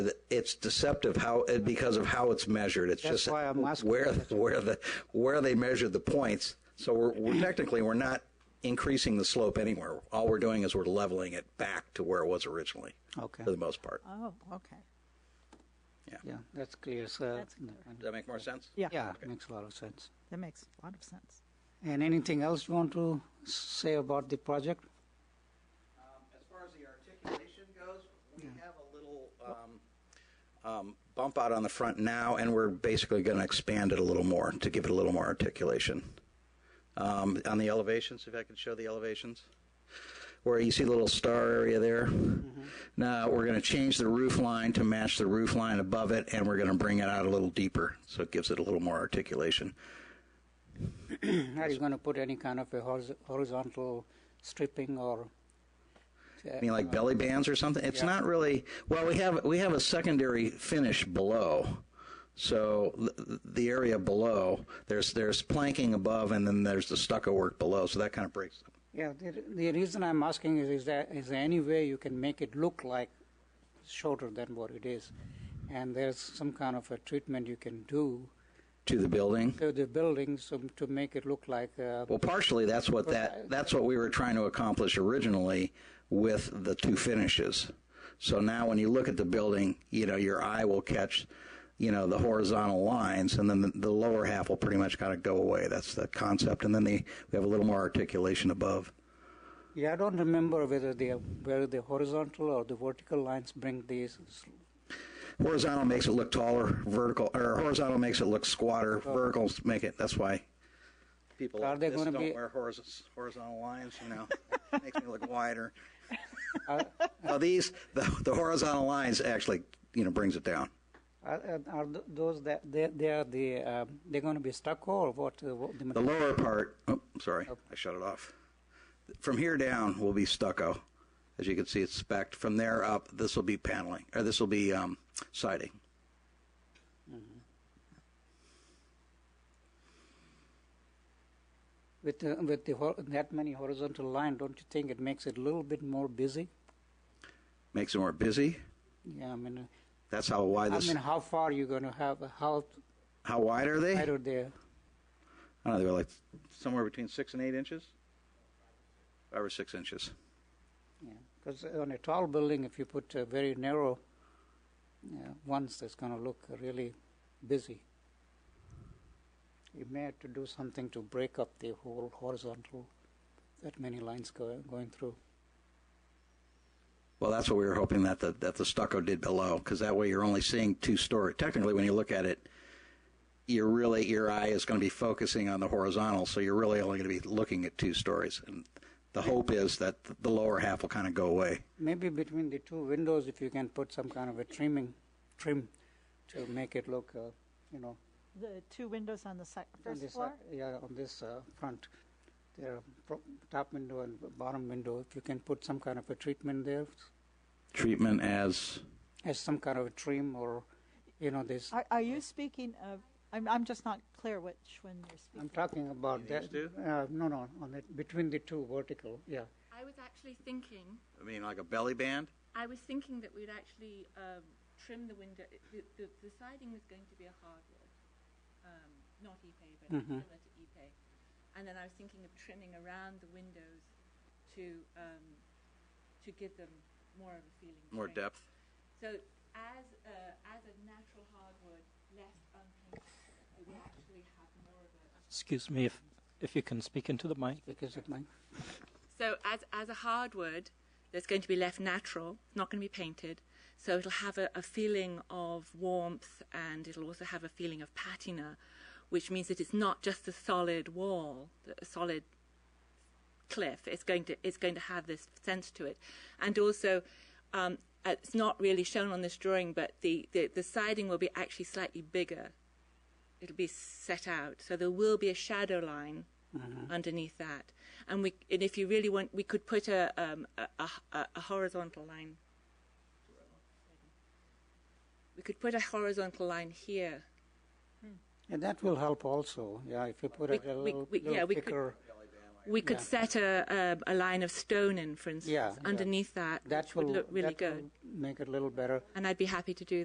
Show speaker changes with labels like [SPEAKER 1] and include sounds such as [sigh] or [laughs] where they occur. [SPEAKER 1] it's deceptive how, because of how it's measured. It's
[SPEAKER 2] That's
[SPEAKER 1] just
[SPEAKER 2] why I'm asking.
[SPEAKER 1] where, where the, where they measured the points. So we're, we're
[SPEAKER 2] [clears throat]
[SPEAKER 1] technically, we're not increasing the slope anywhere. All we're doing is we're leveling it back to where it was originally.
[SPEAKER 2] Okay.
[SPEAKER 1] For the most part.
[SPEAKER 3] Oh, okay.
[SPEAKER 2] Yeah, that's clear, sir.
[SPEAKER 3] That's clear.
[SPEAKER 1] Does that make more sense?
[SPEAKER 3] Yeah.
[SPEAKER 2] Yeah, makes a lot of sense.
[SPEAKER 3] That makes a lot of sense.
[SPEAKER 2] And anything else you want to say about the
[SPEAKER 1] [clears throat]
[SPEAKER 2] project?
[SPEAKER 1] Um, As far as the articulation goes, we have a little um, um, bump out on the front now, and we're basically going to expand it a little more to give it a little more articulation. Um, On the elevations, if I could show the elevations, where you see the little star area there. Mm-hmm. Now, we're going to change the roof line to match the roof line above it, and we're going to bring it out a little deeper, so it gives it a little more articulation.
[SPEAKER 2] Are you going to put any kind of a horiz- horizontal stripping or? uh,
[SPEAKER 1] I mean, like belly bands or something. It's
[SPEAKER 2] Yeah.
[SPEAKER 1] not really. Well, we have we have a secondary finish below, so the, the area below there's there's planking above, and then there's the stucco work below. So that kind of breaks. up.
[SPEAKER 2] Yeah, the, the reason I'm asking is, is that, is there any way you can make it look like shorter than what it is? And there's some kind of a treatment you can do
[SPEAKER 1] to the building.
[SPEAKER 2] to the building so to make it look like, uh,
[SPEAKER 1] Well, partially that's what that that's what we were trying to accomplish originally with the two finishes. So now when you look at the building, you know your eye will catch, you know the horizontal lines, and then the, the lower half will pretty much kind of go away. That's the concept, and then the, we have a little more articulation above.
[SPEAKER 2] yeah, I don't remember whether the, whether the horizontal or the vertical lines bring these s-
[SPEAKER 1] Horizontal makes it look taller. Vertical or horizontal makes it look squatter.
[SPEAKER 2] Oh.
[SPEAKER 1] Verticals make it. That's why people
[SPEAKER 2] Are
[SPEAKER 1] like
[SPEAKER 2] they
[SPEAKER 1] this
[SPEAKER 2] gonna
[SPEAKER 1] don't
[SPEAKER 2] be-
[SPEAKER 1] wear horiz- horizontal lines. You
[SPEAKER 2] [laughs]
[SPEAKER 1] know, makes me look wider. Now these the, the horizontal lines actually you know brings it down.
[SPEAKER 2] Are, are- uh, are th- those that they, they are the um, they're going to be stucco or what? Uh, what the,
[SPEAKER 1] The
[SPEAKER 2] material
[SPEAKER 1] lower part. Oh, sorry, I shut it off. From here down will be stucco, as you can see it's specked. From there up, this will be paneling or this will be um, siding.
[SPEAKER 2] with uh, with the hor- that many horizontal line, don't you think it makes it a little bit more busy?
[SPEAKER 1] Makes it more busy.
[SPEAKER 2] Yeah, I mean, uh,
[SPEAKER 1] That's how wide
[SPEAKER 2] I
[SPEAKER 1] this.
[SPEAKER 2] mean, how far are you going to have? How
[SPEAKER 1] how wide are they?
[SPEAKER 2] wide are they?
[SPEAKER 1] I don't know, they were like somewhere between six and eight inches. Five or six inches.
[SPEAKER 2] Because on a tall building, if you put uh, very narrow uh, ones, that's going to look really busy. You may have to do something to break up the whole horizontal. That many lines go, going through.
[SPEAKER 1] Well, that's what we were hoping that the that the stucco did below, because that way you're only seeing two story. Technically, when you look at it, you're really your eye is going to be focusing on the horizontal, so you're really only going to be looking at two stories. And the hope is that the lower half will kind of go away.
[SPEAKER 2] Maybe between the two windows, if you can put some kind of a trimming, trim, to make it look, uh, you know,
[SPEAKER 3] The two windows on the sec-
[SPEAKER 2] on
[SPEAKER 3] first
[SPEAKER 2] this,
[SPEAKER 3] floor?
[SPEAKER 2] uh, yeah, on this uh, front, there are pro- top window and bottom window. If you can put some kind of a treatment there,
[SPEAKER 1] Treatment as
[SPEAKER 2] as some kind of a trim or, you know, this.
[SPEAKER 3] Are, are you speaking of, I'm, I'm just not clear which one you're
[SPEAKER 2] I'm
[SPEAKER 3] speaking
[SPEAKER 2] talking about
[SPEAKER 1] these
[SPEAKER 2] that.
[SPEAKER 1] two?
[SPEAKER 2] Uh, no, no, on it between the two vertical. Yeah,
[SPEAKER 4] I was actually thinking,
[SPEAKER 1] I mean, like a belly band.
[SPEAKER 4] I was thinking that we'd actually um, trim the window. it- The, the, the siding was going to be a hardwood, um, not Ipe, but similar to Ipe. And then I was thinking of trimming around the windows to um, to give them more of a feeling.
[SPEAKER 1] More
[SPEAKER 4] trim.
[SPEAKER 1] depth.
[SPEAKER 4] So as a, as a natural hardwood, less unpainted, it will actually have more of a
[SPEAKER 5] Excuse me if if you can speak into the mic.
[SPEAKER 2] because it might.
[SPEAKER 4] So as as a hardwood, that's going to be left natural, not going to be painted. So it'll have a, a feeling of warmth, and it'll also have a feeling of patina, which means that it's not just a solid wall, a solid cliff. It's going to it's going to have this sense to it, and also. Um, uh, it's not really shown on this drawing, but the, the, the siding will be actually slightly bigger. It'll be set out, so there will be a shadow line
[SPEAKER 2] Mm-hmm.
[SPEAKER 4] underneath that. And we, and if you really want, we could put a um, a, a, a- a horizontal line. We could put a horizontal line here.
[SPEAKER 2] And that will help also. Yeah, if you put
[SPEAKER 4] We-
[SPEAKER 2] it a
[SPEAKER 4] we-
[SPEAKER 2] little,
[SPEAKER 4] we-
[SPEAKER 2] little
[SPEAKER 4] yeah, we could-
[SPEAKER 2] thicker.
[SPEAKER 4] We could set a, a, a line of stone in, for instance,
[SPEAKER 2] Yeah, yeah.
[SPEAKER 4] underneath that,
[SPEAKER 2] That
[SPEAKER 4] which
[SPEAKER 2] will
[SPEAKER 4] would look really
[SPEAKER 2] that will
[SPEAKER 4] good.
[SPEAKER 2] Make it a little better.
[SPEAKER 4] And I'd be happy to do